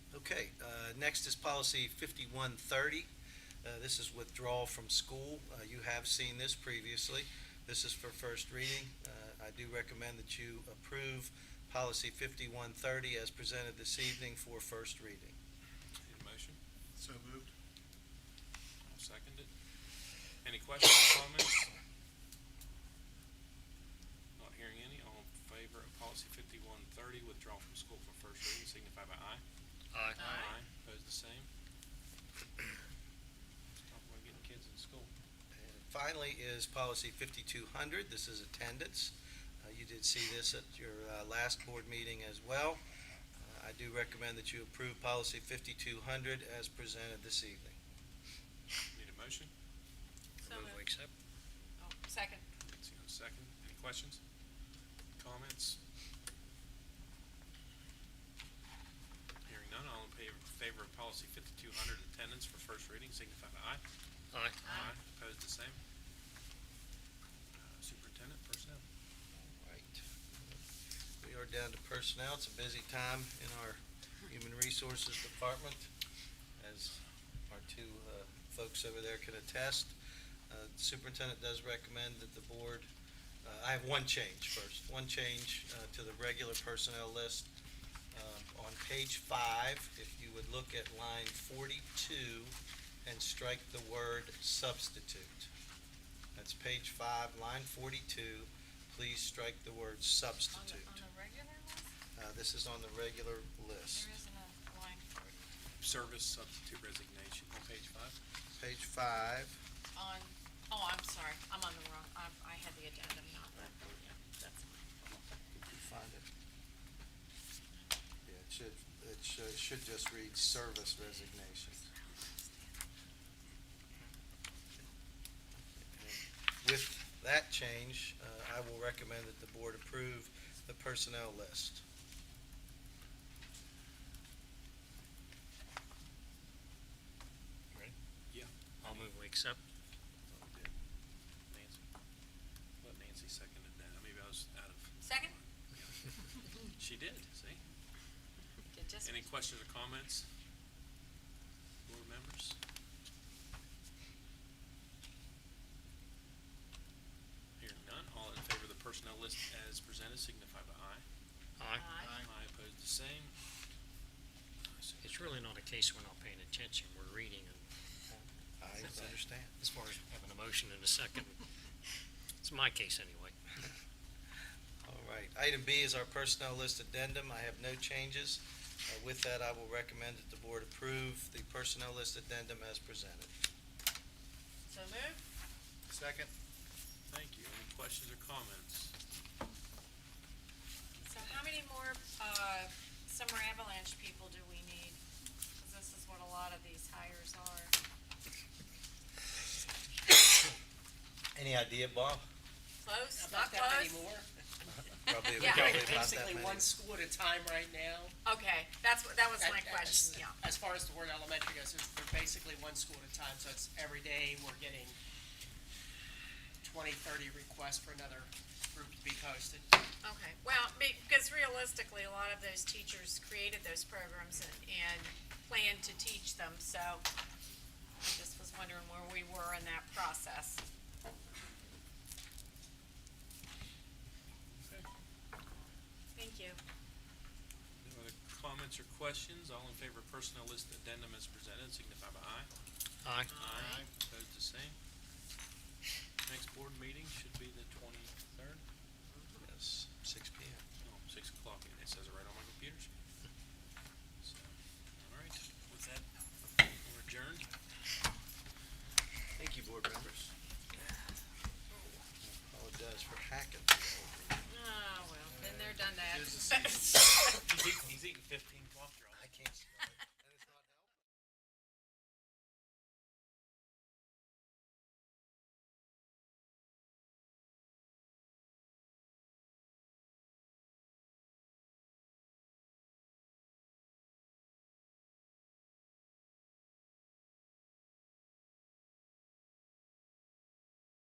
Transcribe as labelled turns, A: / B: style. A: Okay, uh, next is policy fifty-one thirty. Uh, This is withdrawal from school. Uh, You have seen this previously. This is for first reading. Uh, I do recommend that you approve policy fifty-one thirty as presented this evening for first reading.
B: Need a motion?
C: So moved.
B: I'll second it. Any questions or comments? Not hearing any. All in favor of policy fifty-one thirty, withdraw from school for first reading, signify by aye.
C: Aye.
B: Aye. Opposed, the same. Stop by getting kids in school.
A: And Finally is policy fifty-two hundred, this is attendance. Uh, You did see this at your uh, last board meeting as well. Uh, I do recommend that you approve policy fifty-two hundred as presented this evening.
B: Need a motion?
D: So
E: Move we
D: moved.
E: accept.
D: Oh, second.
B: Nancy, a second. Any questions? Comments? Hearing none, all in favor, favor of policy fifty-two hundred attendance for first reading, signify by aye.
E: Aye.
B: Aye. Opposed, the same. Uh, Superintendent, personnel.
A: Right. We are down to personnel. It's a busy time in our human resources department, as our two uh, folks over there can attest. Uh, Superintendent does recommend that the board, uh, I have one change first, one change uh, to the regular personnel list. Um, On page five, if you would look at line forty-two and strike the word substitute. That's page five, line forty-two. Please strike the word
D: On the,
A: substitute.
D: on the regular list,
A: Uh, this is on the regular list.
D: there isn't a line for it.
B: Service substitute resignation on page five.
A: Page five,
D: On, oh, I'm sorry, I'm on the wrong, I, I had the addendum, not the, yeah, that's
A: if
D: mine.
A: you find it. Yeah, it should, it should, should just read service resignation. With that change, uh, I will recommend that the board approve the personnel list.
B: Yeah.
E: I'll move we accept.
B: Oh, we did. Nancy. Let Nancy seconded that. Maybe I was out of,
D: Second?
B: she did, see?
D: Good, just-
B: Any questions or comments? Board members? Hearing none, all in favor of the personnel list as presented signify by aye.
E: Aye.
D: Aye.
B: Aye opposed the same.
E: It's really not a case we're not paying attention, we're reading, and
A: I understand.
E: as far as having a motion in a second, it's my case anyway.
A: All right, item B is our personnel list addendum, I have no changes. Uh, With that, I will recommend that the board approve the personnel list addendum as presented.
D: So move.
C: Second.
B: Thank you. Any questions or comments?
D: So how many more, uh, summer avalanche people do we need? Cause this is what a lot of these hires are.
A: Any idea, Bob?
D: Close, not
F: Not that
D: close?
F: anymore.
A: Probably
D: Yeah.
A: probably about that
F: Basically,
A: many.
F: one school at a time right now.
D: Okay, that's, what that was my
F: That- that-
D: question, yeah.
F: As far as the word elementary goes, it's- they're basically one school at a time, so it's every day we're getting 20, 30 requests for another group to be posted.
D: Okay, well, because realistically, a lot of those teachers created those programs and, and planned to teach them, so I just was wondering where we were in that process. Thank you.
B: No other comments or questions? All in favor of personnel list addendum as presented signify by aye.
E: Aye.
B: Aye. Opposed the same. Next board meeting should be the twenty-third,
A: Yes, six P M.
B: no, six o'clock, and it says it right on my computer. So, all right, with that, we're adjourned.
A: Thank you, board members. Apologize for hacking.
D: Oh, well, Ah, then they're done that.
C: He's eating fifteen cough drops.
A: I can't.